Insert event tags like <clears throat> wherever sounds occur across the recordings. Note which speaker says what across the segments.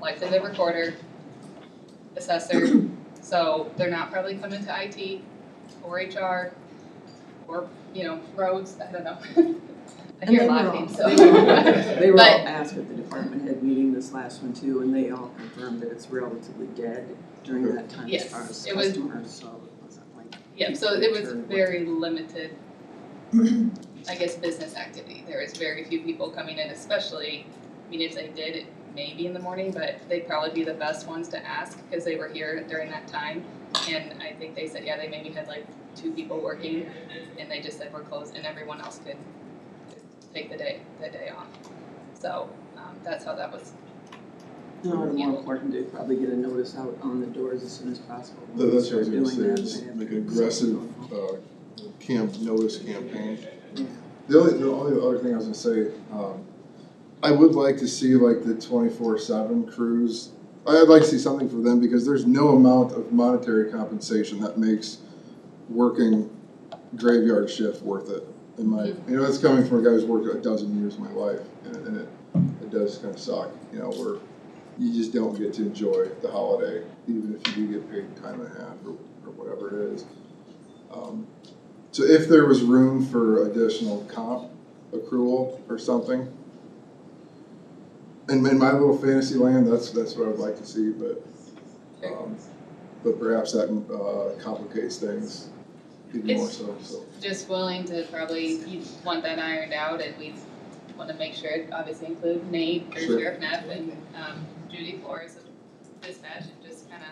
Speaker 1: like they're the recorder, assessor,
Speaker 2: <clears throat>
Speaker 1: so they're not probably coming to IT or HR or, you know, roads, I don't know. <laughs> I
Speaker 2: And
Speaker 1: hear a
Speaker 2: they
Speaker 1: lot
Speaker 2: were
Speaker 1: of
Speaker 2: all-
Speaker 1: things, so.
Speaker 2: they
Speaker 1: <laughs>
Speaker 2: were <laughs> all- They were all
Speaker 1: But-
Speaker 2: asked at the department head meeting this last one too, and they all confirmed that it's relatively dead during that time as
Speaker 1: Yes,
Speaker 2: far as
Speaker 1: it was-
Speaker 2: customers, so it wasn't like.
Speaker 1: Yeah, so it was very limited, I guess, business activity. There was very few people coming in, especially, I mean, if they did, it may be in the morning, but they'd probably be the best ones to ask because they were here during that time. And I think they said, yeah, they maybe had like two people working and they just said we're closed and everyone else could could take the day, the day off. So, um, that's how that was,
Speaker 2: No, and more important to probably get a notice out on the doors as soon as possible.
Speaker 3: Th- That's what I was gonna
Speaker 2: Doing
Speaker 3: say,
Speaker 2: that,
Speaker 3: is
Speaker 2: they have
Speaker 3: like
Speaker 2: to-
Speaker 3: aggressive, uh, camp, notice campaign. The only, the only other thing I was gonna say, um, I would like to see like the twenty-four seven crews. I- I'd like to see something for them because there's no amount of monetary compensation that makes working graveyard shift worth it. In my, you know, that's coming from a guy who's worked a dozen years of my life and it- and it, it does kinda suck, you know, where you just don't get to enjoy the holiday, even if you do get paid time and a half or, or whatever it is. Um, So if there was room for additional comp accrual or something, and in my little fantasy land, that's, that's what I would like to see, but, um, but perhaps that, uh, complicates things even more
Speaker 1: It's-
Speaker 3: so, so.
Speaker 1: just willing to probably, you want that ironed out and we wanna make sure it obviously include Nate or
Speaker 3: Sure.
Speaker 1: Sheriff Neff and um Judy Flores of dispatch and just kinda,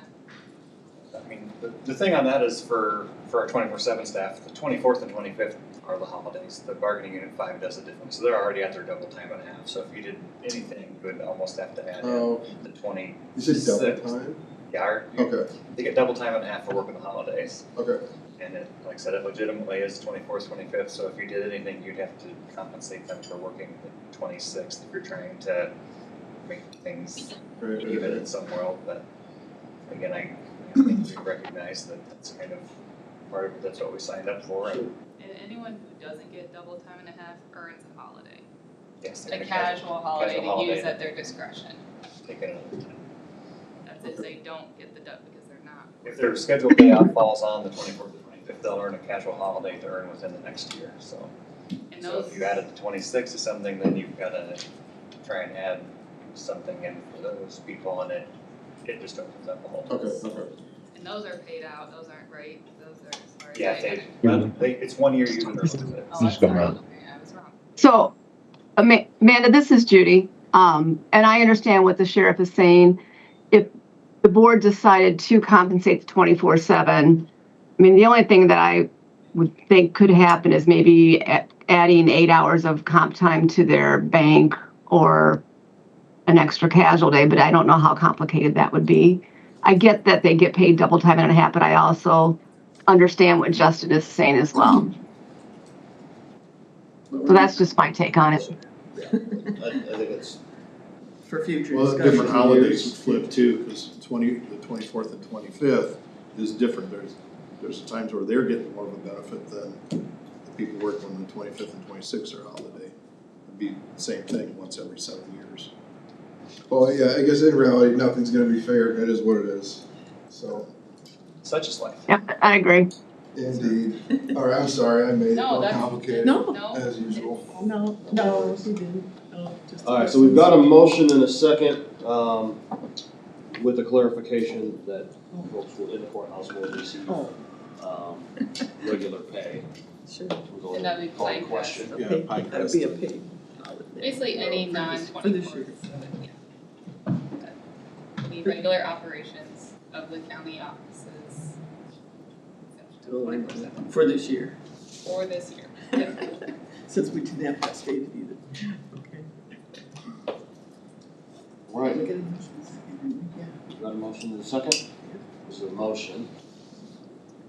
Speaker 4: I mean, the, the thing on that is for, for our twenty-four seven staff, the twenty-fourth and twenty-fifth are the holidays, the bargaining unit five does it differently, so they're already at their double time and a half, so if you did anything, you would almost have to add in
Speaker 3: Oh,
Speaker 4: the twenty,
Speaker 3: you said double
Speaker 4: Six.
Speaker 3: time?
Speaker 4: yeah, our- you-
Speaker 3: Okay,
Speaker 4: they get double time and a half for working the holidays.
Speaker 3: okay,
Speaker 4: And it, like I said, it legitimately is twenty-fourth, twenty-fifth, so if you did anything, you'd have to compensate them for working the twenty-sixth, if you're trying to make things
Speaker 3: right, right,
Speaker 4: even
Speaker 3: right.
Speaker 4: in some world, but again, I, I think we recognize that that's kind of part of, that's what we signed up for, and
Speaker 1: and anyone who doesn't get double time and a half earns a holiday.
Speaker 4: yes,
Speaker 1: A
Speaker 4: they're gonna
Speaker 1: casual holiday to
Speaker 4: holiday.
Speaker 1: use at their discretion,
Speaker 4: take it another time.
Speaker 1: that's if they don't get the dub because they're not.
Speaker 4: If their scheduled day off falls on the twenty-fourth or twenty-fifth, they'll earn a casual holiday to earn within the next year, so.
Speaker 1: And
Speaker 4: So
Speaker 1: those,
Speaker 4: if you added the twenty-sixth to something, then you've gotta try and add something in for those people, and it, it just opens up a whole.
Speaker 3: Okay, okay.
Speaker 1: and those are paid out, those aren't great, those are as far as
Speaker 4: Yeah,
Speaker 1: I-
Speaker 4: if they, but they, it's one year you can earn it.
Speaker 1: Oh, I'm
Speaker 5: Just go
Speaker 1: sorry.
Speaker 5: around.
Speaker 1: Okay, I was wrong.
Speaker 6: So, Ama- Amanda, this is Judy, um, and I understand what the sheriff is saying. If the board decided to compensate the twenty-four seven, I mean, the only thing that I would think could happen is maybe a- adding eight hours of comp time to their bank or an extra casual day, but I don't know how complicated that would be. I get that they get paid double time and a half, but I also understand what Justin is saying as well. So that's just my take on it.
Speaker 7: I, I think it's,
Speaker 2: For future
Speaker 3: Well,
Speaker 2: discussion.
Speaker 3: different
Speaker 7: holidays
Speaker 3: years.
Speaker 7: would flip too, cause twenty, the twenty-fourth and twenty-fifth is different, there's, there's times where they're getting more of a benefit than the people working on the twenty-fifth and twenty-sixth are holiday. It'd be the same thing once every seven years.
Speaker 3: Well, yeah, I guess in reality, nothing's gonna be fair, it is what it is, so,
Speaker 4: Such is life.
Speaker 6: Yep, I agree.
Speaker 3: indeed. All right, I'm sorry, I made it
Speaker 1: No,
Speaker 3: more
Speaker 1: that's-
Speaker 3: complicated,
Speaker 2: No.
Speaker 1: No,
Speaker 3: as usual.
Speaker 2: No, no, she didn't, no, just.
Speaker 8: Alright, so we've got a motion and a second, um, with the clarification that folks will, in the courthouse will receive,
Speaker 2: Oh,
Speaker 8: um, regular pay.
Speaker 2: sure.
Speaker 8: We'll
Speaker 1: and
Speaker 8: go
Speaker 1: that would be
Speaker 8: call the
Speaker 1: fine.
Speaker 8: question.
Speaker 7: Yeah,
Speaker 2: Paid-
Speaker 7: pie
Speaker 2: That'd be a
Speaker 7: crust.
Speaker 2: paid holiday.
Speaker 1: Basically any
Speaker 2: For this-
Speaker 1: non-24.
Speaker 2: for this year.
Speaker 1: The regular operations of the county offices.
Speaker 2: Oh, I know.
Speaker 1: 24/7,
Speaker 2: For this year,
Speaker 1: Or this year, yeah.
Speaker 2: since we didn't have that stated either. Okay.
Speaker 8: Right,
Speaker 2: We got a motion, second, yeah.
Speaker 8: we've got a motion and a second, this is a motion.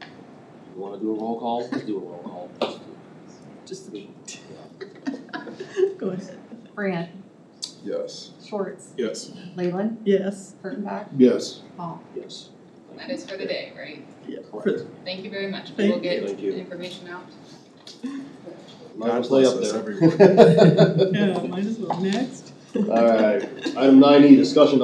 Speaker 8: You wanna do a roll call? Let's do a roll call. Let's do-
Speaker 2: Just the. Go ahead.
Speaker 9: Brand,
Speaker 3: Yes.
Speaker 9: Schwartz,
Speaker 3: Yes.
Speaker 9: Leyland,
Speaker 2: Yes,
Speaker 9: Kurttenbach,
Speaker 7: Yes,
Speaker 9: Paul.
Speaker 8: Yes.
Speaker 1: That is for the day, right?
Speaker 2: yeah. for
Speaker 8: Correct.
Speaker 2: the-
Speaker 1: Thank you very much. We will
Speaker 2: Thank
Speaker 1: get
Speaker 8: Thank you.
Speaker 1: the information out.
Speaker 8: Might as
Speaker 3: God
Speaker 8: well
Speaker 3: bless us,
Speaker 8: stay up <laughs>
Speaker 3: everyone.
Speaker 8: there.
Speaker 2: Yeah, might as well, next.
Speaker 8: Uh, Alright, item nine E, discussion